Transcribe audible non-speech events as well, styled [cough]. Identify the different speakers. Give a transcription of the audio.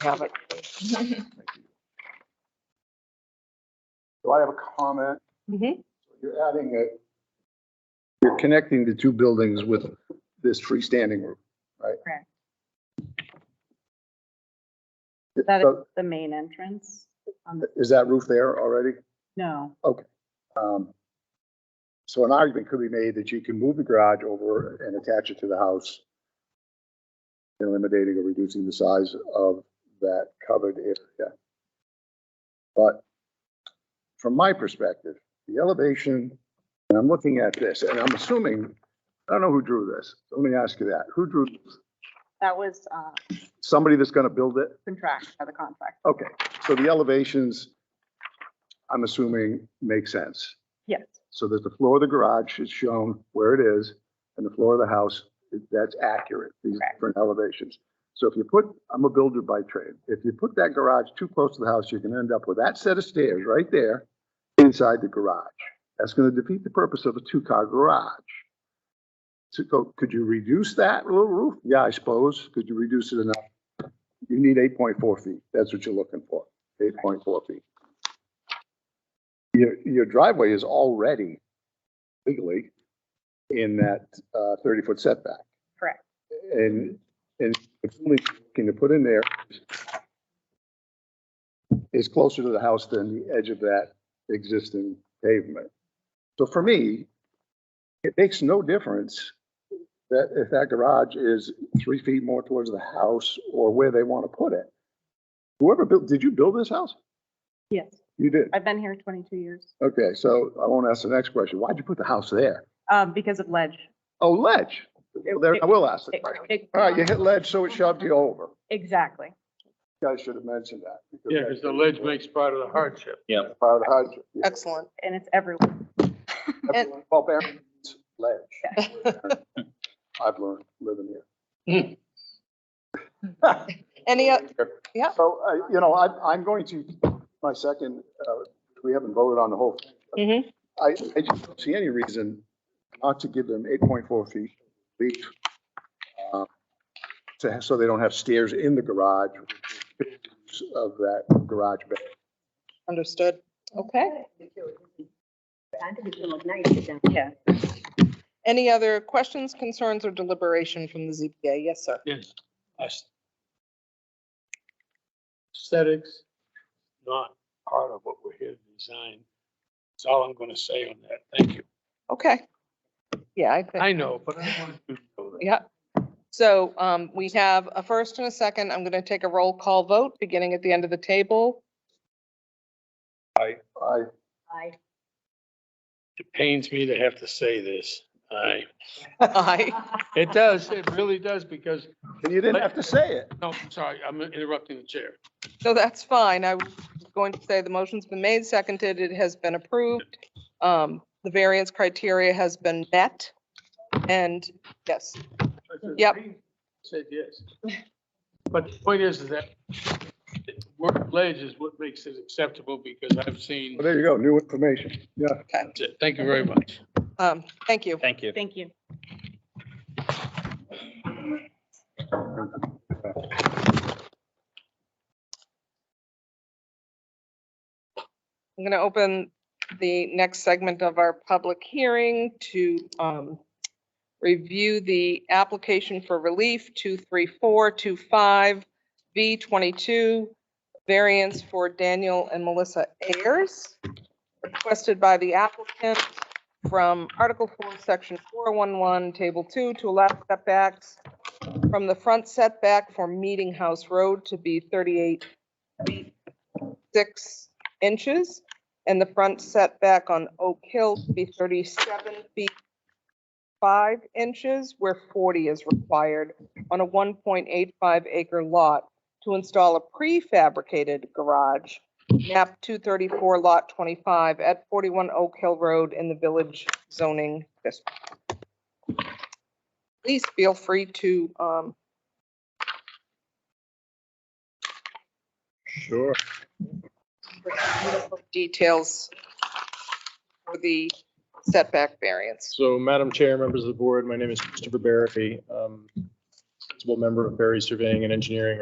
Speaker 1: have it.
Speaker 2: So I have a comment.
Speaker 1: Mhm.
Speaker 2: You're adding a, you're connecting the two buildings with this freestanding roof, right?
Speaker 1: Correct. That is
Speaker 2: So
Speaker 1: the main entrance on the,
Speaker 2: Is that roof there already?
Speaker 1: no,
Speaker 2: Um, So an argument could be made that you can move the garage over and attach it to the house, eliminating or reducing the size of that covered area. But from my perspective, the elevation, and I'm looking at this, and I'm assuming, I don't know who drew this. Let me ask you that. Who drew, this?
Speaker 1: that was, uh,
Speaker 2: somebody that's gonna build it?
Speaker 1: contract, by the contract.
Speaker 2: Okay, so the elevations, I'm assuming, make sense.
Speaker 1: Yes,
Speaker 2: so that the floor of the garage is shown where it is, and the floor of the house, that's accurate, these
Speaker 1: Correct.
Speaker 2: different elevations. So if you put, I'm a builder by trade, if you put that garage too close to the house, you're gonna end up with that set of stairs right there inside the garage. That's gonna defeat the purpose of a two-car garage. So co- could you reduce that little roof? Yeah, I suppose. Could you reduce it enough? You need eight point four feet. That's what you're looking for, eight point four feet. Your, your driveway is already legally in that uh, thirty-foot setback.
Speaker 1: Correct.
Speaker 2: And, and it's only thing to put in there is closer to the house than the edge of that existing pavement. So for me, it makes no difference that if that garage is three feet more towards the house or where they want to put it. Whoever built, did you build this house?
Speaker 1: yes.
Speaker 2: You did.
Speaker 1: I've been here twenty-two years,
Speaker 2: Okay, so I won't ask the next question. Why'd you put the house there?
Speaker 1: um, because of ledge.
Speaker 2: Oh, ledge. Well, There, I will ask the
Speaker 1: It-
Speaker 2: question.
Speaker 1: it-
Speaker 2: All right, Uh, you hit ledge, so it shoved you over.
Speaker 1: Exactly.
Speaker 2: You Guys should have mentioned that.
Speaker 3: Yeah, because the ledge makes part of the hardship.
Speaker 2: Part of the hardship. Yeah.
Speaker 4: Excellent.
Speaker 1: And it's everywhere.
Speaker 2: Everyone- Well, Barron's ledge. I've learned living
Speaker 3: [laughs]
Speaker 2: here. [laughs]
Speaker 4: Any, o- yeah.
Speaker 2: So, uh, you know, I, I'm going to, my second, uh, we haven't voted on the whole.
Speaker 4: Mm-hmm.
Speaker 1: Mhm.
Speaker 2: I, I just don't see any reason not to give them eight point four feet relief. uh, To, have- so they don't have stairs in the garage of that garage bed.
Speaker 4: understood. Okay.
Speaker 1: Yeah.
Speaker 4: Any other questions, concerns, or deliberation from the ZBA? Yes, sir.
Speaker 3: Yes. Aesthetics, not part of what we're here to design. That's all I'm gonna say on that. Thank you.
Speaker 4: Okay. Yeah, I think,
Speaker 3: I know, but I want to know that.
Speaker 4: yeah. So um, we have a first and a second. I'm going to take a roll call vote, beginning at the end of the table.
Speaker 2: I,
Speaker 3: It pains me to have to say this. I,
Speaker 4: Aye.
Speaker 3: it does, it really does, because,
Speaker 2: and you didn't have to say it.
Speaker 3: no, I'm sorry, I'm interrupting the chair.
Speaker 4: [laughs] So that's fine. I was going to say the motion's been made, seconded, it has been approved. Um, The variance criteria has been met. And yes, Yep.
Speaker 3: Said yes. But the point is, is that the word ledge is what makes it acceptable, because I've seen,
Speaker 2: Well, there you go, new information. Yeah.
Speaker 3: That's it. thank you very much.
Speaker 4: um, thank you.
Speaker 5: Thank you.
Speaker 1: Thank you.
Speaker 4: I'm going to open the next segment of our public hearing to um, review the application for relief 23425 V22 variance for Daniel and Melissa Ayers, requested by the applicant from Article 4, Section 411, Table 2, to allow setbacks from the front setback for Meeting House Road to be 38 feet 6 inches and the front setback on Oak Hill to be 37 feet 5 inches where 40 is required on a 1.85 acre lot to install a prefabricated garage, map 234 lot 25 at 41 Oak Hill Road in the Village zoning district. Please feel free to um,
Speaker 2: Sure.
Speaker 4: details for the setback variance.
Speaker 6: So Madam Chair, members of the board, my name is Christopher Barry, um, principal member of Barry Surveying and Engineering